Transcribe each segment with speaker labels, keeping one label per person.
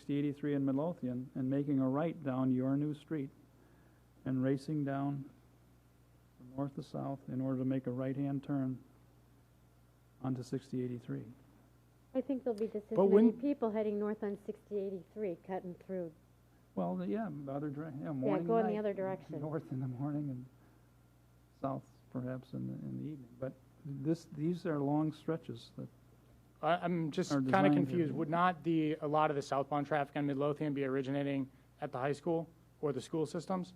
Speaker 1: 6083 in Midlothian and making a right down your new street and racing down from north to south in order to make a right-hand turn onto 6083.
Speaker 2: I think there'll be just as
Speaker 3: But
Speaker 2: many
Speaker 3: when-
Speaker 2: people heading north on 6083, cutting through.
Speaker 1: Well, th- yeah, the other direction, yeah, morning and
Speaker 2: go in the
Speaker 1: night.
Speaker 2: other direction.
Speaker 1: North in the morning and south perhaps in the, in the evening. But this, these are long stretches that,
Speaker 3: I, I'm just
Speaker 1: Our
Speaker 3: kind
Speaker 1: design
Speaker 3: of
Speaker 1: here.
Speaker 3: confused. Would not the, a lot of the southbound traffic on Midlothian be originating at the high school or the school systems?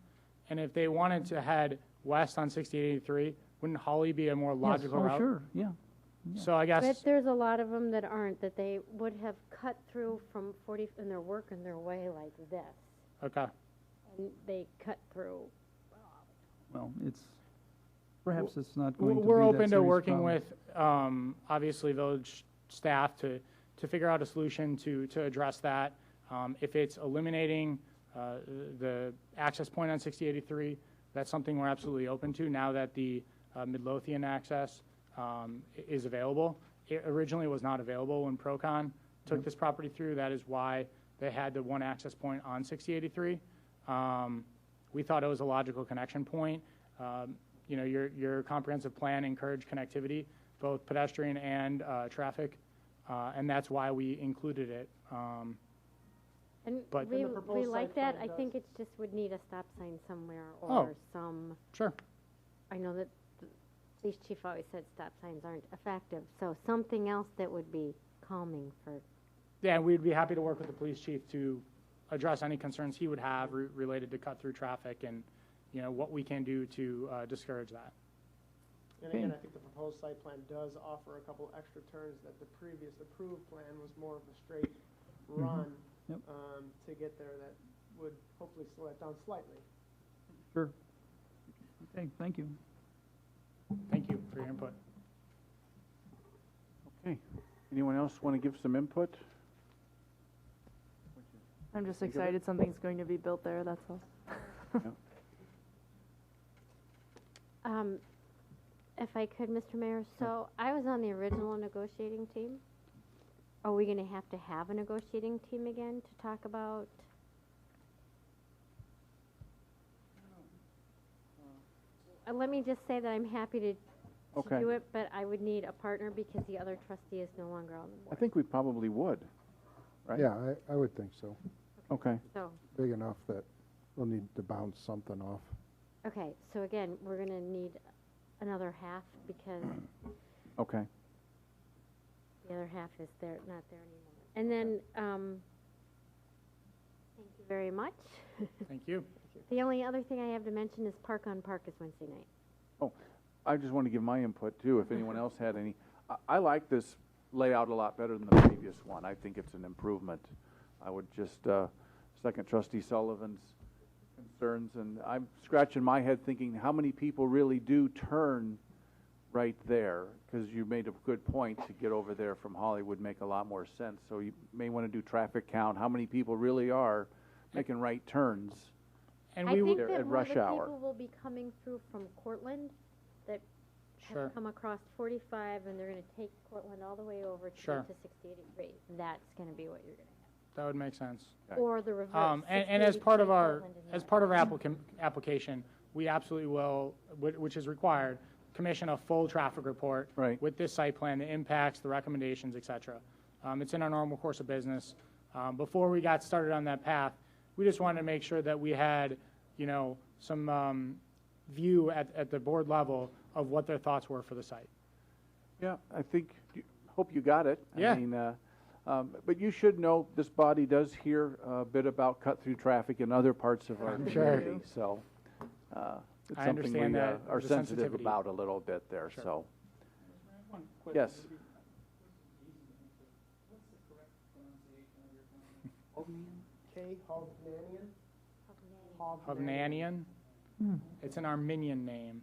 Speaker 3: And if they wanted to head west on 6083, wouldn't Holly be a more
Speaker 1: yes,
Speaker 3: logical
Speaker 1: oh,
Speaker 3: route?
Speaker 1: sure, yeah. yeah.
Speaker 3: So I
Speaker 2: But
Speaker 3: guess,
Speaker 2: there's a lot of them that aren't, that they would have cut through from 40, and they're working their way like this.
Speaker 3: okay.
Speaker 2: And they cut through.
Speaker 1: Well, it's, perhaps it's not going to be
Speaker 3: We're
Speaker 1: that
Speaker 3: open to
Speaker 1: serious
Speaker 3: working
Speaker 1: problem.
Speaker 3: with, um, obviously, village staff to, to figure out a solution to, to address that. Um, If it's eliminating uh, the access point on 6083, that's something we're absolutely open to now that the uh, Midlothian access um, i- is available. It originally was not available when Procon
Speaker 1: Mm-hmm.
Speaker 3: took this property through. That is why they had the one access point on 6083. Um, We thought it was a logical connection point. Um, You know, your, your comprehensive plan encouraged connectivity, both pedestrian and uh, traffic, uh, and that's why we included it. Um,
Speaker 2: And
Speaker 3: But-
Speaker 2: we,
Speaker 4: And the
Speaker 2: we
Speaker 4: proposed
Speaker 2: like
Speaker 4: site
Speaker 2: that. I
Speaker 4: plan
Speaker 2: think it just would need a stop sign somewhere
Speaker 3: Oh.
Speaker 2: or some,
Speaker 3: Sure.
Speaker 2: I know that the police chief always said stop signs aren't effective. So something else that would be calming for,
Speaker 3: Yeah, and we'd be happy to work with the police chief to address any concerns he would have re- related to cut-through traffic and, you know, what we can do to uh, discourage that.
Speaker 4: And again, I think the proposed site plan does offer a couple extra turns that the previous approved plan was more of a straight run
Speaker 1: Yep.
Speaker 4: um, to get there that would hopefully slow that down slightly.
Speaker 1: Sure. Okay, thank you.
Speaker 3: Thank you for your input.
Speaker 5: Okay. Anyone else want to give some input?
Speaker 6: I'm just
Speaker 5: Think of it.
Speaker 6: excited something's going to be built there, that's all.
Speaker 2: um, if I could, Mr. Mayor, so I was on the original negotiating team. Are we gonna have to have a negotiating team again to talk about? Uh, let me just say that I'm happy to, to
Speaker 5: Okay.
Speaker 2: do it, but I would need a partner because the other trustee is no longer on the
Speaker 5: I
Speaker 2: board,
Speaker 5: think we probably would. right?
Speaker 7: Yeah, I, I would think so.
Speaker 5: Okay.
Speaker 2: so.
Speaker 7: Big enough that we'll need to bounce something off.
Speaker 2: Okay, so again, we're gonna need another half because
Speaker 5: Okay.
Speaker 2: the other half is there, not there anymore. And then, um, thank you very much.
Speaker 3: Thank you.
Speaker 2: The only other thing I have to mention is Park on Park is Wednesday night.
Speaker 5: I just want to give my input too, if anyone else had any. I, I like this layout a lot better than the previous one. I think it's an improvement. I would just, uh, second trustee Sullivan's concerns, and I'm scratching my head thinking, how many people really do turn right there? Because you made a good point to get over there from Hollywood make a lot more sense. So you may want to do traffic count, how many people really are making right turns?
Speaker 3: And
Speaker 2: I
Speaker 3: we
Speaker 2: think
Speaker 3: would,
Speaker 5: There
Speaker 2: that
Speaker 5: at
Speaker 2: more
Speaker 5: rush
Speaker 2: of the
Speaker 5: hour.
Speaker 2: people will be coming through from Cortland that
Speaker 3: Sure.
Speaker 2: have come across forty-five and they're gonna take Cortland all the way over to
Speaker 3: Sure.
Speaker 2: get to sixty eighty-three. That's gonna be what you're gonna
Speaker 3: that would make sense.
Speaker 2: have. Or the reverse.
Speaker 3: Um, and, and as part of
Speaker 2: 6083
Speaker 3: our,
Speaker 2: Cortland and
Speaker 3: as
Speaker 2: north.
Speaker 3: part of our applicant, application, we absolutely will, whi- which is required, commission a full traffic report.
Speaker 5: Right.
Speaker 3: With this site plan, the impacts, the recommendations, et cetera. Um, it's in our normal course of business. Um, before we got started on that path, we just wanted to make sure that we had, you know, some, um, view at, at the board level of what their thoughts were for the site.
Speaker 5: Yeah, I think, hope you got it.
Speaker 3: Yeah.
Speaker 5: I mean, uh, um, but you should know this body does hear a bit about cut through traffic in other parts of our
Speaker 3: sure.
Speaker 5: community. So uh, it's
Speaker 3: I
Speaker 5: something
Speaker 3: understand
Speaker 5: we uh,
Speaker 3: that,
Speaker 5: are
Speaker 3: the
Speaker 5: sensitive
Speaker 3: sensitivity.
Speaker 5: about a little bit there.
Speaker 3: Sure.
Speaker 5: So, yes.
Speaker 4: K, Hovnanian?
Speaker 3: Hovnanian. It's an Armenian name,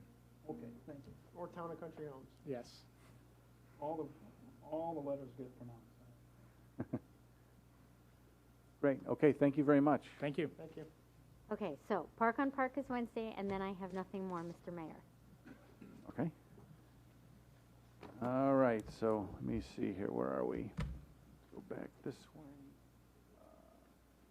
Speaker 4: Okay, thank you. Or Town and Country Homes.
Speaker 3: yes.
Speaker 1: All the, all the letters get pronounced.
Speaker 5: Great. Okay. Thank you very much.
Speaker 3: Thank you.
Speaker 4: Thank you.
Speaker 2: Okay, so Park on Park is Wednesday, and then I have nothing more, Mr. Mayor.
Speaker 5: Okay. All right. So let me see here. Where are we? Go back this way.